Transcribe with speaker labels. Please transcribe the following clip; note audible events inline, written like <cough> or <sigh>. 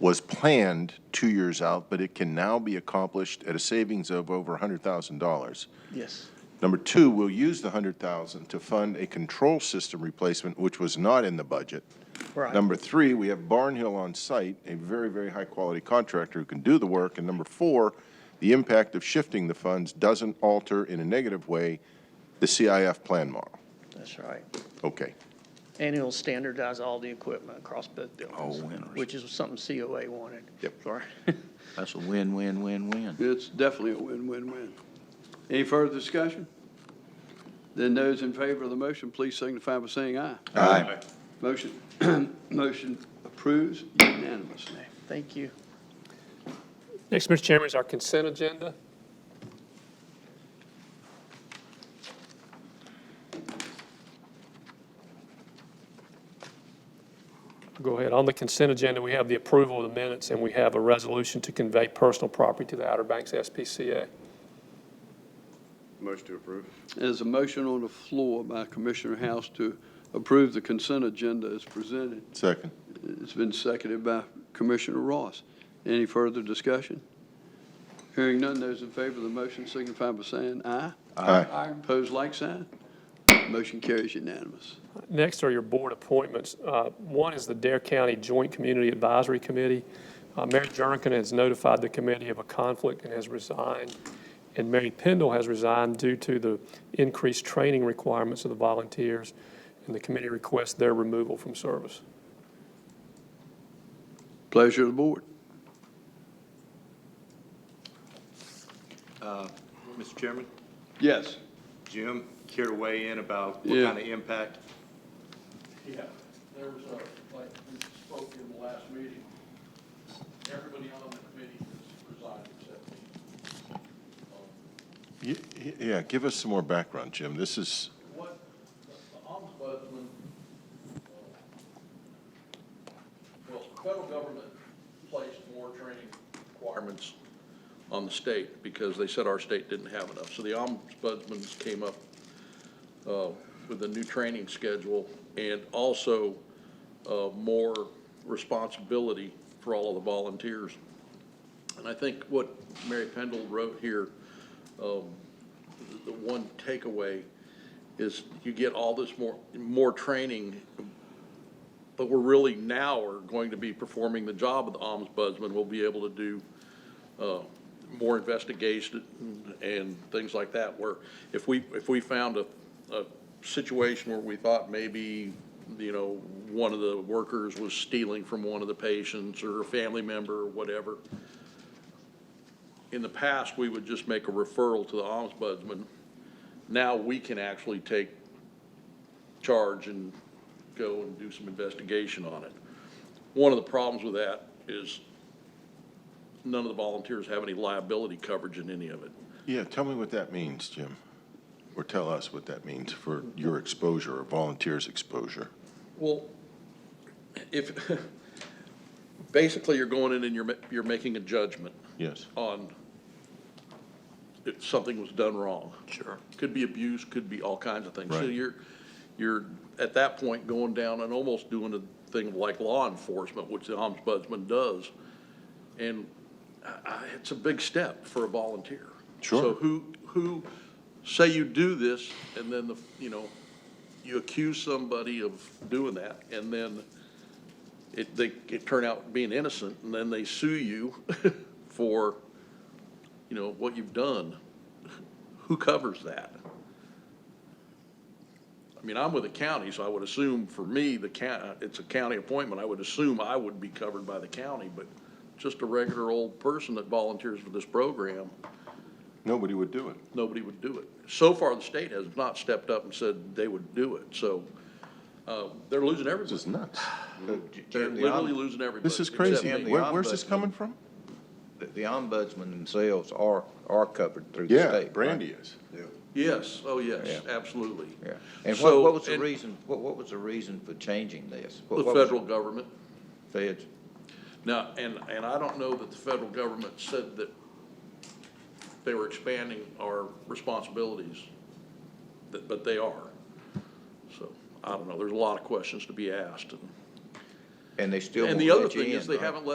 Speaker 1: was planned two years out, but it can now be accomplished at a savings of over $100,000.
Speaker 2: Yes.
Speaker 1: Number two, we'll use the 100,000 to fund a control system replacement, which was not in the budget.
Speaker 2: Right.
Speaker 1: Number three, we have Barn Hill on site, a very, very high-quality contractor who can do the work. And number four, the impact of shifting the funds doesn't alter in a negative way the CIF plan model.
Speaker 2: That's right.
Speaker 1: Okay.
Speaker 2: And it'll standardize all the equipment across both buildings.
Speaker 3: Oh, interesting.
Speaker 2: Which is something COA wanted.
Speaker 1: Yep.
Speaker 2: Sorry. <laughs>
Speaker 3: That's a win, win, win, win.
Speaker 4: It's definitely a win-win-win. Any further discussion? Then those in favor of the motion, please signify by saying aye.
Speaker 3: Aye.
Speaker 4: Motion, <clears throat> motion approves unanimously.
Speaker 2: Thank you.
Speaker 5: Next, Mr. Chairman, is our consent agenda. Go ahead. On the consent agenda, we have the approval of the minutes, and we have a resolution to convey personal property to the Outer Banks SPCA.
Speaker 6: Motion to approve.
Speaker 4: There's a motion on the floor by Commissioner House to approve the consent agenda as presented.
Speaker 1: Second.
Speaker 4: It's been seconded by Commissioner Ross. Any further discussion? Hearing none, those in favor of the motion signify by saying aye.
Speaker 1: Aye.
Speaker 4: Opposed, like sign. Motion carries unanimous.
Speaker 5: Next are your board appointments. Uh, One is the Dare County Joint Community Advisory Committee. Uh, Mary Jernigan has notified the committee of a conflict and has resigned. And Mary Pendle has resigned due to the increased training requirements of the volunteers, and the committee requests their removal from service.
Speaker 4: Pleasure of the board.
Speaker 6: Mr. Chairman,
Speaker 4: Yes.
Speaker 6: Jim, care to weigh in about what
Speaker 4: Yeah.
Speaker 6: kind of impact?
Speaker 7: Yeah, there was a, like, we spoke in the last meeting, everybody on the committee has resigned except me. Um,
Speaker 1: Y- y- Yeah, give us some more background, Jim. This is,
Speaker 7: What, the the ombudsman, uh, well, the federal government placed more training requirements on the state because they said our state didn't have enough. So the ombudsman came up uh, with a new training schedule and also uh, more responsibility for all of the volunteers. And I think what Mary Pendle wrote here, um, the the one takeaway is you get all this more, more training, but we're really now are going to be performing the job of the ombudsman. We'll be able to do uh, more investigation and things like that, where if we, if we found a, a situation where we thought maybe, you know, one of the workers was stealing from one of the patients or a family member or whatever, in the past, we would just make a referral to the ombudsman. Now we can actually take charge and go and do some investigation on it. One of the problems with that is none of the volunteers have any liability coverage in any of it.
Speaker 1: yeah, tell me what that means, Jim. Or tell us what that means for your exposure or volunteers' exposure.
Speaker 7: Well, if, <laughs> basically you're going in and you're, ma- you're making a judgment
Speaker 1: Yes.
Speaker 7: on if something was done wrong.
Speaker 3: Sure.
Speaker 7: Could be abuse, could be all kinds of things. So
Speaker 1: Right.
Speaker 7: you're, you're at that point going down and almost doing a thing like law enforcement, which the ombudsman does. And I- I, it's a big step for a volunteer.
Speaker 1: Sure.
Speaker 7: So who, who, say you do this and then the, you know, you accuse somebody of doing that and then it, they, it turn out being innocent and then they sue you <laughs> for, you know, what you've done. Who covers that? I mean, I'm with the county, so I would assume for me, the county, it's a county appointment, I would assume I would be covered by the county, but just a regular old person that volunteers for this program,
Speaker 1: Nobody would do it.
Speaker 7: nobody would do it. So far, the state has not stepped up and said they would do it, so, uh, they're losing
Speaker 1: This is
Speaker 7: everybody.
Speaker 1: nuts.
Speaker 7: They're literally losing everybody.
Speaker 1: This is
Speaker 7: except
Speaker 1: crazy.
Speaker 7: me.
Speaker 1: Where- Where's this
Speaker 3: ombudsman-
Speaker 1: coming from?
Speaker 3: The- The ombudsman themselves are, are covered through the state.
Speaker 1: Yeah,
Speaker 3: right?
Speaker 1: Brandy is.
Speaker 7: Yes, oh, yes,
Speaker 3: Yeah.
Speaker 7: absolutely.
Speaker 3: Yeah. And
Speaker 7: So-
Speaker 3: what, what was the
Speaker 7: and
Speaker 3: reason, what, what was the reason for changing this? What-
Speaker 7: The
Speaker 3: what was-
Speaker 7: federal government.
Speaker 3: Feds,
Speaker 7: Now, and, and I don't know that the federal government said that they were expanding our responsibilities, but, but they are. So, I don't know, there's a lot of questions to be asked. and-
Speaker 3: and they still
Speaker 7: And
Speaker 3: won't
Speaker 7: the other
Speaker 3: let you
Speaker 7: thing is,
Speaker 3: in,
Speaker 7: they
Speaker 3: right?
Speaker 7: haven't let